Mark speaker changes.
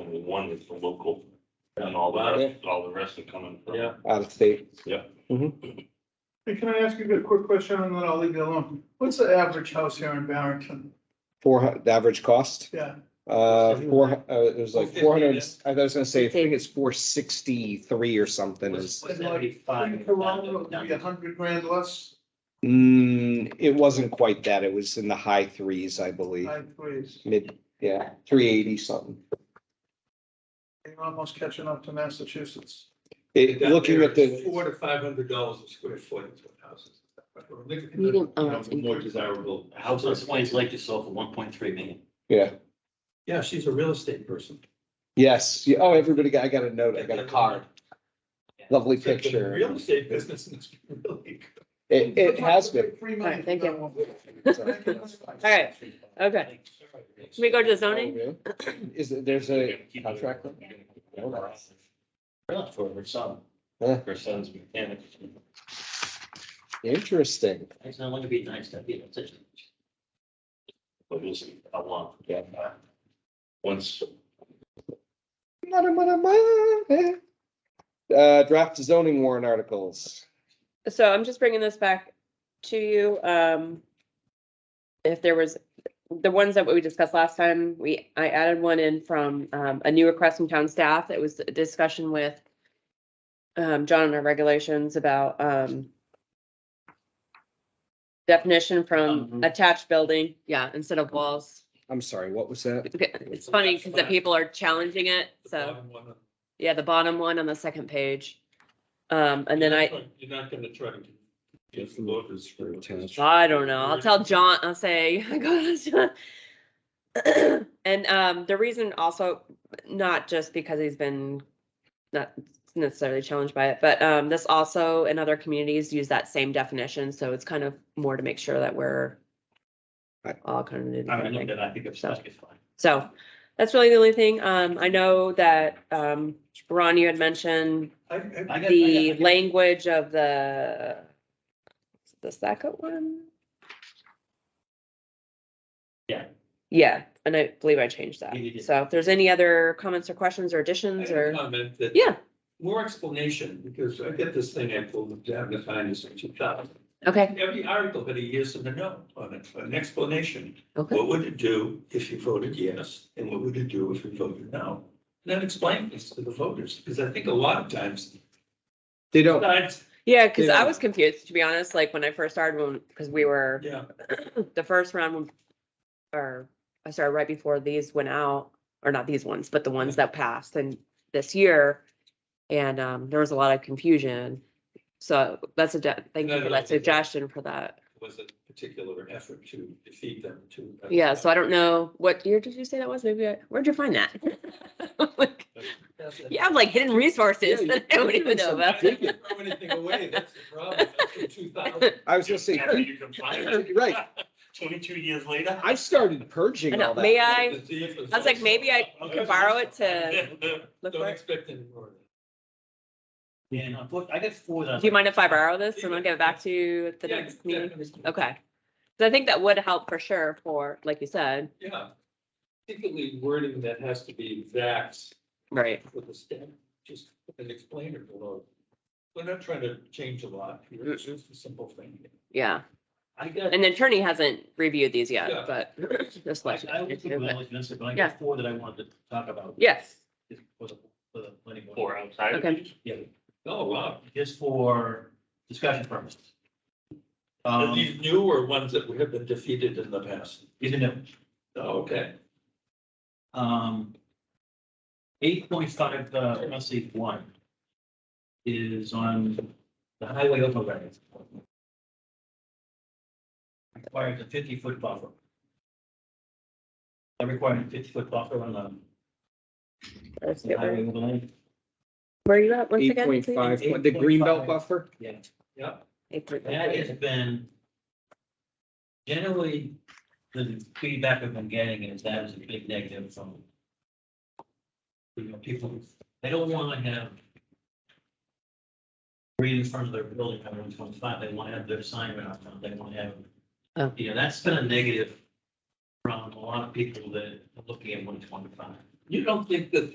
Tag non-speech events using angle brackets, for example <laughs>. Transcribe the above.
Speaker 1: one is the local and all the rest, all the rest are coming from.
Speaker 2: Yeah.
Speaker 3: out of state.
Speaker 4: Hey, can I ask you a quick question and then I'll leave you alone? What's the average house here in Barrington?
Speaker 3: Four, hu- the average cost,
Speaker 4: Yeah,
Speaker 3: uh, four, hu- uh, it was like
Speaker 2: 450,
Speaker 3: four hundred, I was gonna say, I think it's four sixty-three or something is.
Speaker 4: Was that in Corona, it would be a hundred grand less,
Speaker 3: Mm, it wasn't quite that. It was in the high threes, I believe,
Speaker 4: I please.
Speaker 3: mid, yeah, three eighty something.
Speaker 4: You're almost catching up to Massachusetts.
Speaker 3: It, looking at
Speaker 2: Four
Speaker 3: the,
Speaker 2: to five hundred dollars a square foot is what houses. are.
Speaker 5: Medium,
Speaker 2: You
Speaker 5: oh,
Speaker 2: know,
Speaker 5: it's
Speaker 2: More desirable
Speaker 1: House on
Speaker 2: houses.
Speaker 1: Swains Lake is sold for one point three million.
Speaker 3: yeah,
Speaker 2: Yeah, she's a real estate person.
Speaker 3: yes, yeah, oh, everybody got, I got a note, I got a card. Lovely
Speaker 2: She's been in
Speaker 3: picture.
Speaker 2: Real estate business and it's
Speaker 3: <laughs>
Speaker 2: really. good.
Speaker 3: It, it has been.
Speaker 4: Free money.
Speaker 5: Alright, thank you.
Speaker 4: you.
Speaker 5: All right, okay. Should we go to the zoning?
Speaker 3: Is, it- there's a contract.
Speaker 1: Not for her son,
Speaker 3: Huh.
Speaker 1: her son's mechanic.
Speaker 3: Interesting.
Speaker 1: It's not going to be nice to be in a position. But we'll see how long.
Speaker 3: Yeah.
Speaker 1: Once,
Speaker 3: Uh, draft zoning warrant articles.
Speaker 5: So I'm just bringing this back to you. Um, if there was, the ones that we discussed last time, we, I added one in from, um, a new request from town staff. It was a discussion with um, John and our regulations about, um, definition from
Speaker 1: Mhm.
Speaker 5: attached building, yeah, instead of walls.
Speaker 3: I'm sorry, what was that?
Speaker 5: Okay, It's funny because the people are challenging it,
Speaker 2: The
Speaker 5: so,
Speaker 2: bottom one on-
Speaker 5: yeah, the bottom one on the second page. Um, and then I.
Speaker 2: You're not gonna try to. Get the voters for.
Speaker 5: I don't know.
Speaker 2: Mm.
Speaker 5: I'll tell John, I'll say, <laughs> go to John. <clears throat> And um, the reason also, not just because he's been not necessarily challenged by it, but um, this also in other communities use that same definition. So it's kind of more to make sure that we're
Speaker 3: Right.
Speaker 5: all kind of. doing the
Speaker 1: I
Speaker 5: right
Speaker 1: mean,
Speaker 5: thing.
Speaker 1: that I think it's, I think it's fine.
Speaker 5: So that's really the only thing. Um, I know that um, Ron, you had mentioned
Speaker 4: I, I,
Speaker 1: I got- I got-
Speaker 5: the
Speaker 1: I got-
Speaker 5: language of the the second one.
Speaker 1: Yeah.
Speaker 5: Yeah, and I believe I changed that.
Speaker 1: You did.
Speaker 5: So if there's any other comments or questions or
Speaker 2: I
Speaker 5: additions
Speaker 2: have a
Speaker 5: or,
Speaker 2: Comment that.
Speaker 5: yeah,
Speaker 2: More explanation, because I get this thing I pulled down to find this in two thousand.
Speaker 5: okay,
Speaker 2: Every article had a yes and a no on it, an explanation.
Speaker 5: okay,
Speaker 2: What would it do if you voted yes, and what would it do if you voted no? And then explain this to the voters, because I think a lot of times,
Speaker 3: They don't,
Speaker 2: sometimes,
Speaker 5: yeah, because I
Speaker 3: Yeah.
Speaker 5: was confused, to be honest, like when I first started, when, because we were,
Speaker 2: yeah,
Speaker 5: the first round, when- or I started right before these went out, or not these ones, but the ones that passed and this year. And um, there was a lot of confusion. So that's a, de- thank
Speaker 2: No,
Speaker 5: you for
Speaker 2: no,
Speaker 5: that
Speaker 2: it's okay.
Speaker 5: suggestion for that.
Speaker 2: was a particular effort to defeat them to. uh,
Speaker 5: Yeah, so I don't know, what year did you say that was? Maybe, I- where'd you find that? <laughs> Like, You have like hidden resources
Speaker 3: Yeah,
Speaker 5: that I don't even
Speaker 2: <laughs>
Speaker 5: know
Speaker 2: I <laughs>
Speaker 5: about.
Speaker 2: didn't throw anything away, that's the problem, that's from two
Speaker 5: <laughs>
Speaker 2: thousand.
Speaker 3: I was gonna say,
Speaker 1: Yeah,
Speaker 3: <coughs>
Speaker 1: you can find it.
Speaker 3: right,
Speaker 1: Twenty-two years later.
Speaker 3: I started
Speaker 5: I
Speaker 3: purging
Speaker 5: know,
Speaker 3: all
Speaker 5: May
Speaker 3: that.
Speaker 5: I, I was like, maybe
Speaker 2: <laughs>
Speaker 5: I could borrow it to look
Speaker 2: Don't
Speaker 5: for it.
Speaker 2: expect any more.
Speaker 1: Yeah, no, but I got four. that-
Speaker 5: Do you mind if I borrow this and I'll give it back to you at the
Speaker 2: Yeah,
Speaker 5: next meeting?
Speaker 2: definitely.
Speaker 5: Okay. So I think that would help for sure for, like you said,
Speaker 2: Yeah, particularly wording that has to be vax
Speaker 5: right?
Speaker 2: with a stamp, just an explainer below. We're not trying to change a lot, here, it's just a simple thing.
Speaker 5: Yeah.
Speaker 1: I got.
Speaker 5: And the attorney hasn't reviewed these
Speaker 2: Yeah.
Speaker 5: yet, but <laughs> just
Speaker 1: I
Speaker 5: like.
Speaker 1: I would think we'll let you answer, but I
Speaker 5: Yeah.
Speaker 1: got four that I wanted to talk about.
Speaker 5: Yes,
Speaker 1: For the, for the planning board. Four outside.
Speaker 5: of Okay.
Speaker 1: Yeah,
Speaker 2: Oh, wow.
Speaker 1: just for discussion purposes.
Speaker 2: Are
Speaker 1: Um,
Speaker 2: these newer ones that we have been defeated in the past?
Speaker 1: isn't it?
Speaker 2: Oh, okay.
Speaker 1: Um. Eight point five, uh, let's see, one. Is on the highway overlay. Requires a fifty foot buffer. I require a fifty foot buffer on
Speaker 5: Let's
Speaker 1: the
Speaker 5: get
Speaker 1: highway
Speaker 5: where
Speaker 1: overlay,
Speaker 5: where are you at once
Speaker 3: Eight
Speaker 5: again?
Speaker 3: point
Speaker 5: please?
Speaker 3: five,
Speaker 1: Eight
Speaker 3: the
Speaker 1: point
Speaker 3: green belt
Speaker 1: five.
Speaker 3: buffer?
Speaker 1: yeah.
Speaker 2: Yeah,
Speaker 5: Eight point
Speaker 1: That
Speaker 5: five.
Speaker 1: has been. Generally, the feedback I've been getting is that is a big negative from. You know, people, they don't want to have. Read in front of their building, on Route twenty-five, they want to have their sign right out front, they want to
Speaker 5: Oh.
Speaker 1: have. You know, that's been a negative from a lot of people that are looking at one twenty-five.
Speaker 2: you don't think that